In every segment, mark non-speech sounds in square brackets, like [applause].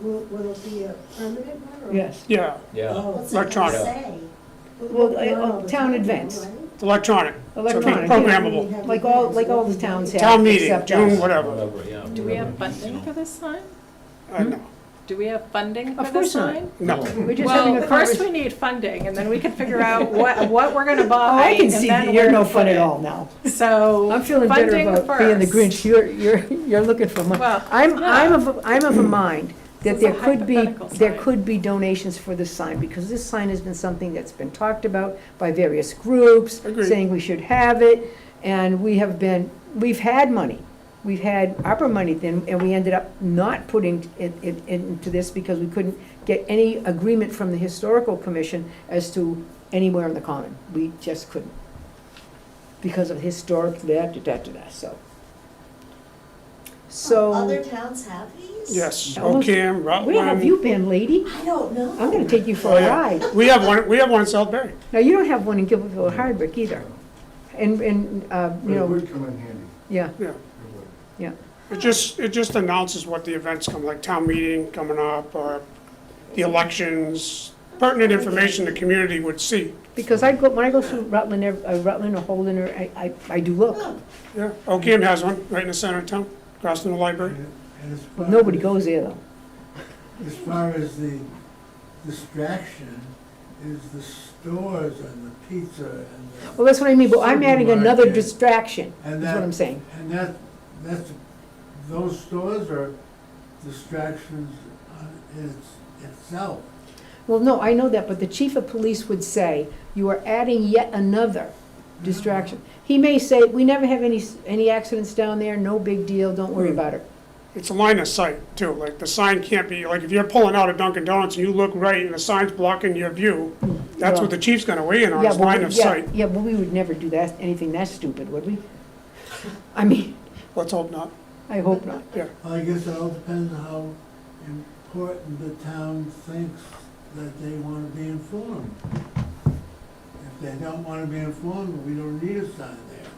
Will, will it be a permanent one or? Yes, Yeah, Yeah, Oh, so it doesn't Electronic. say. Well, Not uh, all the town time, advance. right? it's electronic. Electronic, It's yeah. Programmable. like all, like all the towns have. Town meeting, except June, ours. whatever. whatever, yeah. Do we have funding for this sign? I know. Do we have funding for Of this course not. sign? Uh, No. We're just having Well, a first conversation. we need funding, and then we can [laughs] figure out what, what we're gonna Oh, buy, I can and see then that where you're to no put fun at it. all now. So. I'm feeling better funding about being the first. Grinch. You're, you're, you're looking for money. Well, I'm, yeah. I'm of, a- I'm of a mind that This there is a could be, hypothetical there sign. could be donations for this sign, because this sign has been something that's been talked about by various groups, Agreed. saying we should have it, and we have been, we've had money. We've had ARPA money then, and we ended up not putting it, it into this because we couldn't get any agreement from the historical commission as to anywhere in the common. We just couldn't. Because of historic, da, da, da, da, da, so. Uh, Other So, towns have these? Yes, Almost- OCAM, where have Rutland. you been, lady? I don't know. I'm gonna take you Oh, for a yeah. ride. We have one, we have one in Southbury. Now, you don't have one in Gilbertville or Hardwick either. And, and, uh, But you it know, would come in handy, yeah, Yeah. it would. yeah. It just, it just announces what the events come, like town meeting coming up, or the elections, pertinent information the community would see. Because I go, when I go through Rutland, ev- uh, Rutland or Holden, or I, I, I do look. Yeah, OCAM has one, right in the center of town, across from the library. And and as far Nobody as- goes there though. As far as the distraction is the stores and the pizza and the. Well, that's what I mean, but I'm adding another Supermarket. distraction, is And what I'm that, saying. and that, that's, those stores are distractions on its, itself. Well, no, I know that, but the chief of police would say, you are adding yet another distraction. He may say, we never have any, s- any accidents down there, no big deal, don't Hmm. worry about it. It's a line of sight, too, like, the sign can't be, like, if you're pulling out of Dunkin' Donuts and you look right and the sign's blocking your view, that's what the chief's gonna weigh in on, Yeah, is but we- line of yeah, sight. Yeah, but we would never do that, anything that stupid, would we? I mean, Let's hope not. I hope not. I guess it all depends how important the town thinks that they want to be informed. If they don't want to be informed, we don't need a sign there.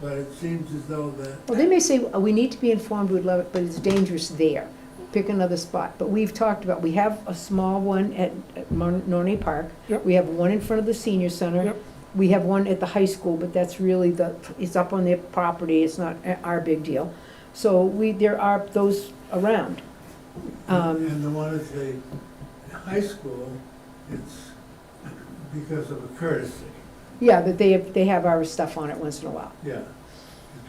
But it seems as though that Well, they may say, "Oh, we need to be informed, we'd love it, but it's dangerous there. Pick another spot. But we've talked about, we have a small one at at Mon- Norney Park. Yep. We have one in front of the senior center. Yep. We have one at the high school, but that's really the, it's up on their property, it's not a- our big deal. So we, there are those around. Um, And the one at the high school, it's because of a courtesy, Yeah, but they, they have our stuff on it once in a while. yeah. It's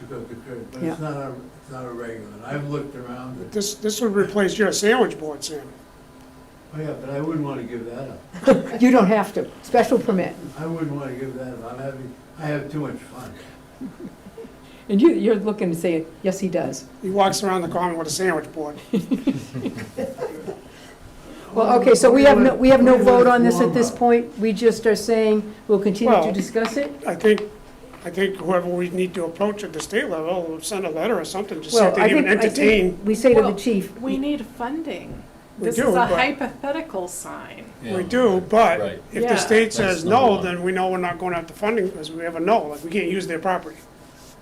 because of the courtesy, but Yeah. it's not a, it's not a regular. And I've looked around, and- This, this would replace your sandwich board, Sam. oh yeah, but I wouldn't want to give that up. You don't have to, special permit. I wouldn't want to give that up. I'm having, I have too much fun. And you, you're looking to say, yes, he does. He walks around the common with a sandwich board. Well, okay, so we have no, we have no Where was- where vote was on this at this Cuomo? point, we just are saying we'll continue to Well- discuss it? I think, I think whoever we need to approach at the state level, will send a letter or something, just so Well, they I even think, I entertain. think we say to the Well, chief, We need funding. We This do, is a but- hypothetical sign. We do, but Right. if Yeah. the state That's says number no, one. then we know we're not going after funding, because we have a no, like, we can't use their property.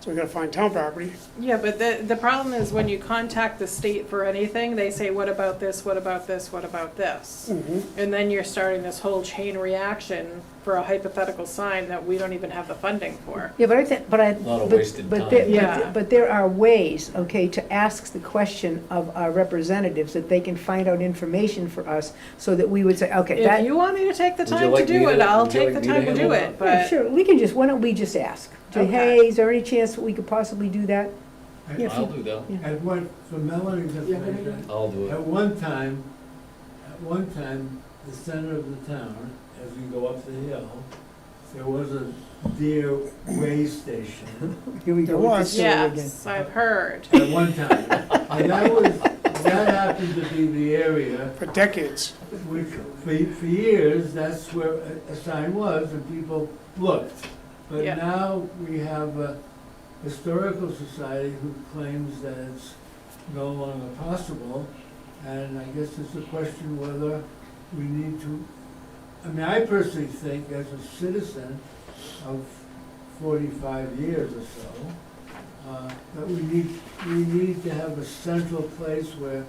So we gotta find town property. Yeah, but the, the problem is when you contact the state for anything, they say, what about this, what about this, what about this? Mm-hmm. And then you're starting this whole chain reaction for a hypothetical sign that we don't even have the funding for. yeah, but I think, but I. Lot of but- wasted but time. there- but Yeah. there- But there are ways, okay, to ask the question of our representatives, that they can find out information for us, so that we would say, okay, that. If you want me to take the Would you time to like me do to- it, I'll would you take the like me to time to do handle it, Yeah, but. Sure, we can just, why don't we just ask, say, Okay. hey, is there any chance that we could possibly do that? I- Yeah, if I'll you- do that. At what, for Melanie's information, I'll do At it. one time, at one time, the center of the town, as you go up the hill, there was a deer way station Here we go. There with this was. story again. Yes, I've heard. at one time. And that was, that happened to be the area For decades, which, for, for years, that's where a, a sign was and people looked. But Yeah. now we have a historical society who claims that it's no longer possible. And I guess it's a question whether we need to, I mean, I personally think as a citizen of forty-five years or so, uh, that we need, we need to have a central place where